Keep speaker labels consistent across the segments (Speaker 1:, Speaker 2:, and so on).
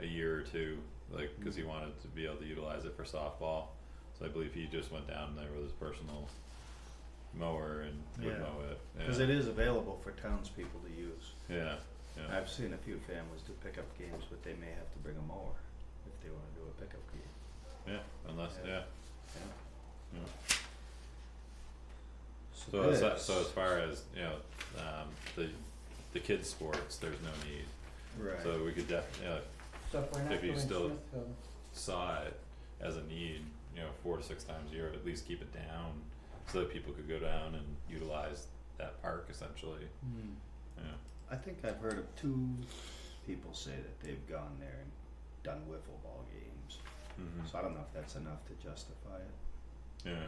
Speaker 1: a year or two, like, cause he
Speaker 2: Mm-hmm.
Speaker 1: wanted to be able to utilize it for softball. So I believe he just went down there with his personal mower and would
Speaker 2: Yeah.
Speaker 1: mow it,
Speaker 2: Cause
Speaker 1: yeah,
Speaker 2: it is available for townspeople to use.
Speaker 1: yeah, yeah.
Speaker 2: I've seen a few families do pickup games, but they may have to bring a mower if they wanna do a pickup game,
Speaker 1: Yeah, unless,
Speaker 2: Yeah.
Speaker 1: yeah,
Speaker 2: yeah.
Speaker 1: yeah.
Speaker 2: So
Speaker 1: So as,
Speaker 2: this-
Speaker 1: so as far as, you know, um, the, the kids' sports, there's no need.
Speaker 2: Right.
Speaker 1: So we could def, you know,
Speaker 3: So if we're
Speaker 1: If
Speaker 3: not
Speaker 1: you
Speaker 3: doing
Speaker 1: still-
Speaker 3: Smithfield,
Speaker 1: saw it as a need, you know, four to six times a year, at least keep it down so that people could go down and utilize that park essentially,
Speaker 2: Hmm.
Speaker 1: yeah.
Speaker 2: I think I've heard of two people say that they've gone there and done wiffle ball games.
Speaker 1: Mm-hmm.
Speaker 2: So I don't know if that's enough to justify it.
Speaker 1: Yeah,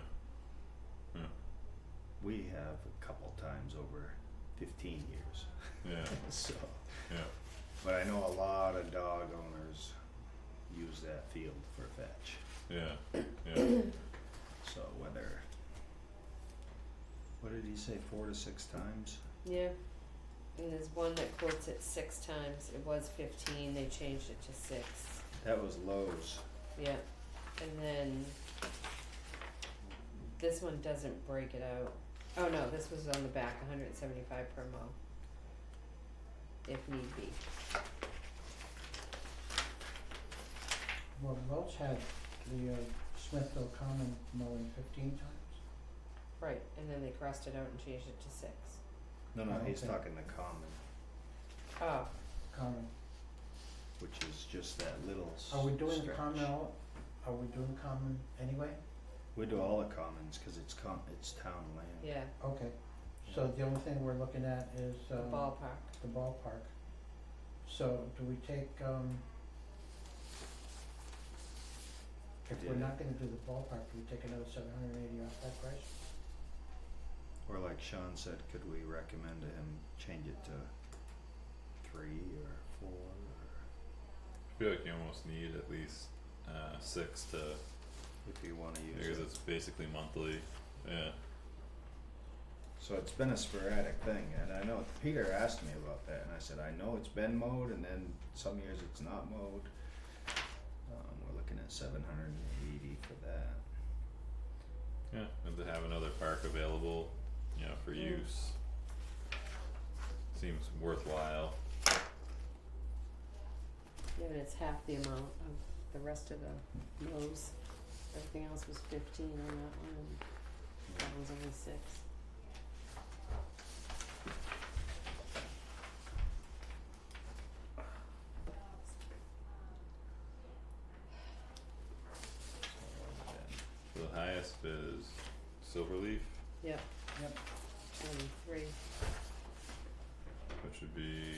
Speaker 2: We have a couple times over fifteen years,
Speaker 1: yeah,
Speaker 2: so.
Speaker 1: Yeah.
Speaker 2: But I know a lot of dog owners use that field for fetch,
Speaker 1: yeah, yeah,
Speaker 2: so whether. What did he say, four to six times?
Speaker 4: Yeah. And there's one that quotes it six times. It was fifteen, they changed it to six.
Speaker 2: That was Lowe's.
Speaker 4: Yeah. And then this one doesn't break it out. Oh no, this was on the back, hundred and seventy-five per mo. If need be.
Speaker 3: well, Welch had the uh, Smithfield Common mowing fifteen times.
Speaker 4: Right, and then they crossed it out and changed it to six.
Speaker 2: No, no, he's
Speaker 3: Okay.
Speaker 2: talking the common,
Speaker 4: Oh,
Speaker 3: Common,
Speaker 2: which is just that little
Speaker 3: are we doing the
Speaker 2: stretch.
Speaker 3: common all, are we doing the common anyway?
Speaker 2: We do all the commons, cause it's com- it's town land.
Speaker 4: yeah,
Speaker 3: Okay, so the only thing we're looking at is
Speaker 4: the
Speaker 3: um
Speaker 4: ballpark.
Speaker 3: the ballpark. So do we take um if we're
Speaker 2: Yeah.
Speaker 3: not gonna do the ballpark, do we take another seven hundred and eighty off that price?
Speaker 2: Or like Sean said, could we recommend to him change it to three or four or
Speaker 1: I feel like you almost need at least, uh, six to,
Speaker 2: if you wanna use
Speaker 1: because
Speaker 2: it?
Speaker 1: it's basically monthly, yeah,
Speaker 2: So it's been a sporadic thing and I know Peter asked me about that and I said, I know it's been mowed and then some years it's not mowed. Um, we're looking at seven hundred and eighty for that.
Speaker 1: yeah, and to have another park available, you know, for
Speaker 4: Mm.
Speaker 1: use. Seems worthwhile,
Speaker 4: Yeah, but it's half the amount of the rest of the Lowe's. Everything else was fifteen on that one, and that one's only six.
Speaker 2: So what was that?
Speaker 1: the highest is Silverleaf,
Speaker 4: Yep.
Speaker 3: Yep.
Speaker 4: Twenty-three.
Speaker 1: which would be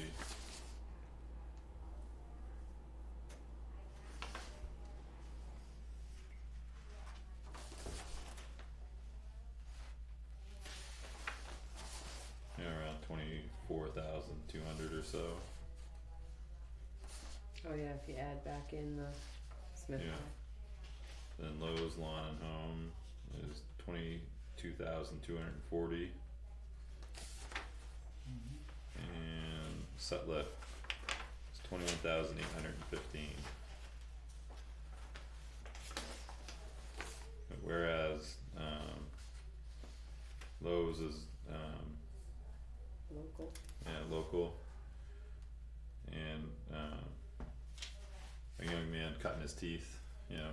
Speaker 1: yeah, around twenty four thousand two hundred or so.
Speaker 4: Oh yeah, if you add back in the Smith.
Speaker 1: Yeah. Then Lowe's Lawn and Home is twenty two thousand two hundred and forty and Sutliff is twenty one thousand eight hundred and fifteen. Whereas um Lowe's is um
Speaker 4: Local.
Speaker 1: yeah, local. And um a young man cutting his teeth, you know,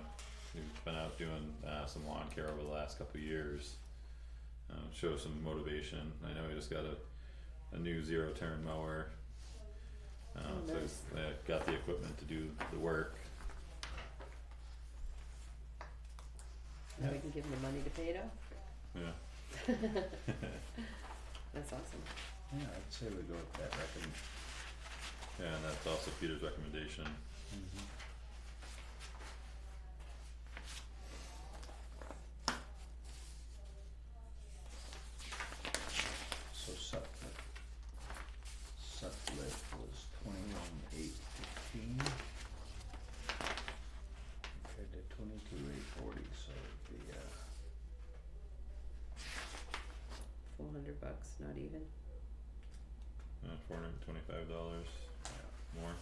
Speaker 1: he's been out doing uh some lawn care over the last couple of years. Um show some motivation. I know he just got a a new zero turn mower. Um
Speaker 4: Oh,
Speaker 1: so he's
Speaker 4: nice.
Speaker 1: uh, got the equipment to do the work.
Speaker 4: Now
Speaker 1: Yeah.
Speaker 4: we can give them the money to pay it off.
Speaker 1: Yeah.
Speaker 4: That's awesome.
Speaker 2: Yeah, I'd say we go with that recommend.
Speaker 1: Yeah, and that's also Peter's recommendation.
Speaker 2: Mm-hmm. So Sutcliffe. Sutcliffe was twenty-one eight fifteen. Compared to twenty-two eight forty, so it'd be uh
Speaker 4: Four hundred bucks, not even.
Speaker 1: Uh four hundred and twenty five dollars more.